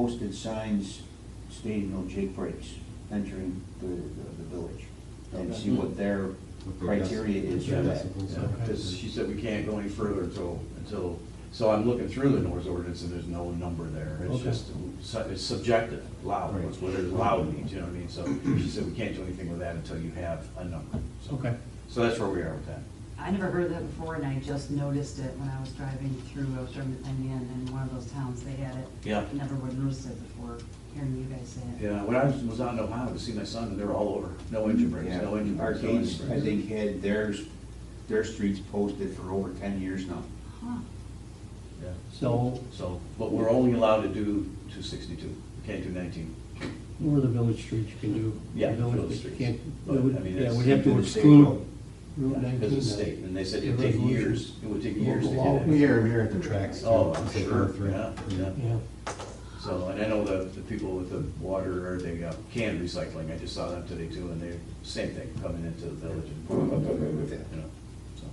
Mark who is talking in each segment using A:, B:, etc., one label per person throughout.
A: posted signs stating no jake breaks entering the, the the village, and see what their
B: What their deci-
A: criteria is for
B: their
A: that.
B: decibels
C: Yeah,
B: are.
C: Because she said we can't go any further until, until, so I'm looking through the noise ordinance and there's no number there. It's
D: Okay.
C: just, su- it's subjective, loud,
B: Right.
C: what's what it loud means, you know what I mean? So she said we can't do anything with that until you have a number. So-
D: Okay.
C: So that's where we are with that.
E: I never heard of that before, and I just noticed it when I was driving through, I was driving to Penn in one of those towns, they had it.
C: Yeah.
E: Never would have noticed it before, hearing you guys say it.
C: Yeah, when I was was out in Ohio to see my son, they were all over, no engine brakes,
A: Yeah,
C: no engine brakes, no engine
A: Arcades,
C: brakes.
A: I think, had theirs, their streets posted for over ten years now.
E: Huh,
C: Yeah.
D: So
C: So, but we're only allowed to do two sixty-two, we can't do nineteen.
D: Or the village streets you can do.
C: Yeah,
D: The village,
C: village
D: but you
C: streets.
D: can't,
C: But,
D: it would-
C: I mean,
D: yeah,
C: it's-
D: we'd have to
A: it's a state
D: exclude
A: road.
D: Route 19.
C: Because of
D: then.
C: state, and they said
D: The
C: it'd take
D: resolution.
C: years, it would take years to
D: Local
C: get
D: law.
C: it.
B: We hear 'em here at the tracks. too.
C: Oh, I'm
B: It's like
C: sure,
B: a threat.
C: yeah, yeah.
D: Yeah,
C: So, and I know the, the people with the water, or they uh, can recycling, I just saw them today too, and they, same thing, coming into the village and, you know, so.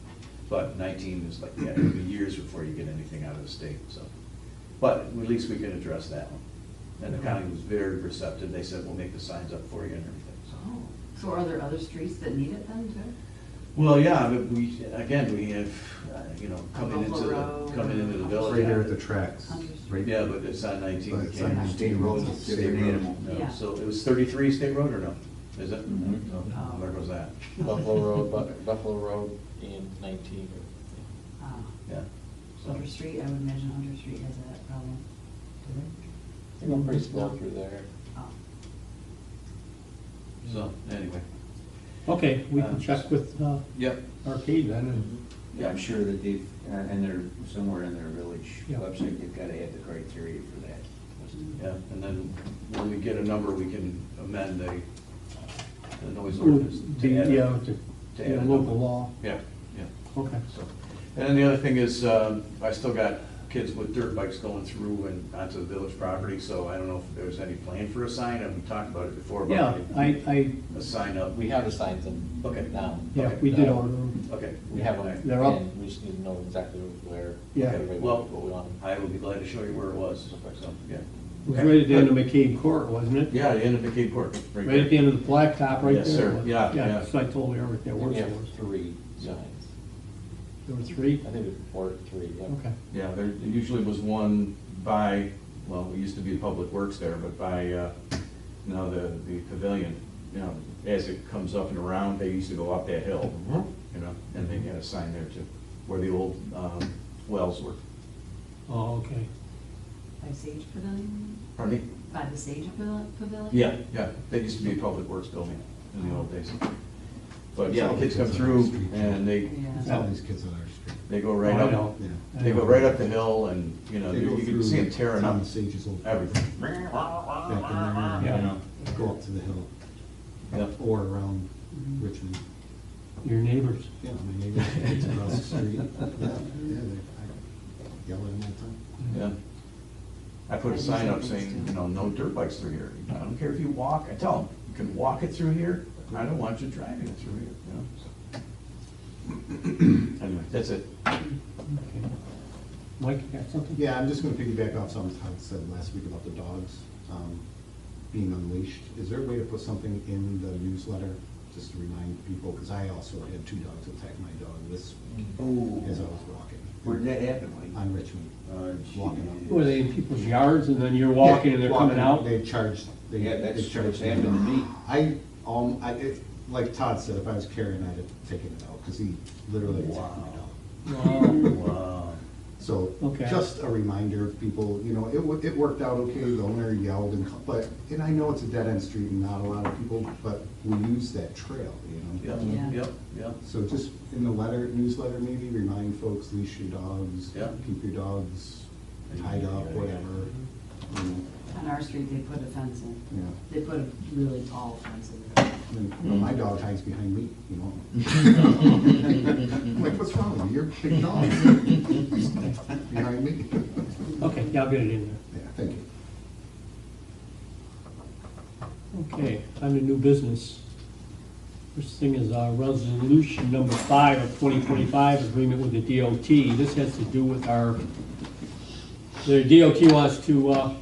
C: But nineteen is like, yeah, it'll be years before you get anything out of the state, so. But at least we can address that one. And the county was very receptive, they said, we'll make the signs up for you and everything, so.
E: oh, so are there other streets that need it then, too?
C: Well, yeah, but we, again, we have, uh, you know, coming into
E: Buffalo
C: the,
E: Road.
C: coming into the
B: It's
C: village.
B: Right here at the tracks. right-
C: Yeah, but it's on nineteen,
B: But
C: we
B: it's on
C: can't.
B: 19.
A: State roads, it's a different
B: State road.
A: animal.
C: No,
E: Yeah.
C: so it was thirty-three state road or no? Is it?
A: Mhm.
C: No, Where was that?
F: Buffalo Road, Bu- Buffalo Road and nineteen.
E: Ah,
C: Yeah. So-
E: Hunter Street, I would imagine Hunter Street has that problem.
F: They go pretty slow through there.
E: Oh,
C: So, anyway.
D: okay, we
C: Um,
D: can check with uh,
C: Yep.
D: Arcade then, and,
A: Yeah, I'm sure that they've, uh, and they're, somewhere in their village
D: Yeah.
A: website, they've gotta add the criteria for that.
C: Yeah, and then when we get a number, we can amend the, the noise
D: Or
C: ordinance.
D: the,
C: to add a-
D: yeah, to,
C: to
D: you know,
C: add a number.
D: local law,
C: Yeah, yeah.
D: okay.
C: So, And then the other thing is, um, I still got kids with dirt bikes going through and onto the village property, so I don't know if there's any plan for a sign, and we talked about it before,
D: Yeah,
C: about
D: I, I,
C: a sign up.
F: We have the signs in
C: Okay.
F: now.
D: yeah, we did order them,
C: Okay.
F: We have them.
D: They're up.
F: and We just need to know exactly where.
D: Yeah.
F: everybody-
C: Well-
F: What we want.
C: I will be glad to show you where it was, so, yeah.
D: it was right at the end of McCabe Court, wasn't it?
C: Yeah, the end of the Cape Court.
D: Right at the end of the blacktop, right there.
C: Yes, sir. Yeah, yeah.
D: Yeah, so I told her everything that
F: We
D: works
F: have
D: for us.
F: three signs.
D: There were three,
F: I think it's four, three, yeah.
D: okay,
B: Yeah, there usually was one by, well, it used to be Public Works there, but by, uh, now the, the pavilion, you know, as it comes up and around, they used to go up that hill, you know, and they had a sign there too, where the old, um, wells were.
D: oh, okay.
E: By Sage Pavilion,
B: Pardon me?
E: by the Sage Pavil- Pavilion?
B: Yeah, yeah, that used to be a Public Works building in the old days. But yeah, kids come through and they,
D: Yeah.
E: Yeah.
G: All these kids on our street.
B: they go right
D: Oh, I know.
B: up,
G: Yeah.
B: they go right up the hill and, you know, you you can see them tearing up
G: Tom Sage's old.
B: everything.
G: Back in there,
D: Yeah.
G: you know, go up to the hill
B: Yep.
G: or around
C: Mm-hmm.
G: Richmond.
D: Your neighbors.
G: Yeah, my neighbor, it's across the street. Yeah, yeah, they I yell at them all the time.
B: Yeah. I put a sign up saying, you know, no dirt bikes through here. I don't care if you walk, I tell them, you can walk it through here. I don't want you driving it through here, you know? so. Anyway, that's it.
D: Okay. Mike, you got something?
G: Yeah, I'm just gonna piggyback off something Todd said last week about the dogs, um, being unleashed. Is there a way to put something in the newsletter, just to remind people, because I also had two dogs attack my dog this week
A: Oh,
G: as I was walking.
A: where'd that happen, Mike?
G: On Richmond,
A: Uh,
G: walking up.
D: Were they in people's yards and then you're walking and they're coming
G: Walking,
D: out?
G: They charged, they,
A: Yeah,
G: they
A: that's what's
G: charged
A: happened to
G: me.
A: me.
G: I, um, I, it, like Todd said, if I was carrying, I'd have taken it out, because he literally attacked my
C: Wow.
G: dog.
D: Wow.
C: Wow.
G: So,
D: Okay.
G: just a reminder, people, you know, it, wo- it worked out okay, the owner yelled and, co- but, and I know it's a dead-end street and not a lot of people, but we use that trail, you
C: Yep,
G: know?
E: Yeah.
C: yep, yep.
G: So just in the letter, newsletter, maybe remind folks, leash your dogs,
C: Yeah.
G: keep your dogs tied up,
C: Yeah, yeah.
G: whatever, you know,
E: On our street, they put a fence in,
G: yeah.
E: they put a really tall fence in.
G: And, you know, my dog hides behind me, you know. I'm like, what's wrong with you? You're a big dog. Behind me.
D: Okay, yeah, I'll get it in
G: Yeah, thank you.
D: there. Okay, time to new business. First thing is uh, resolution number five of 2025, agreement with the DOT. This has to do with our, the DOT wants to uh,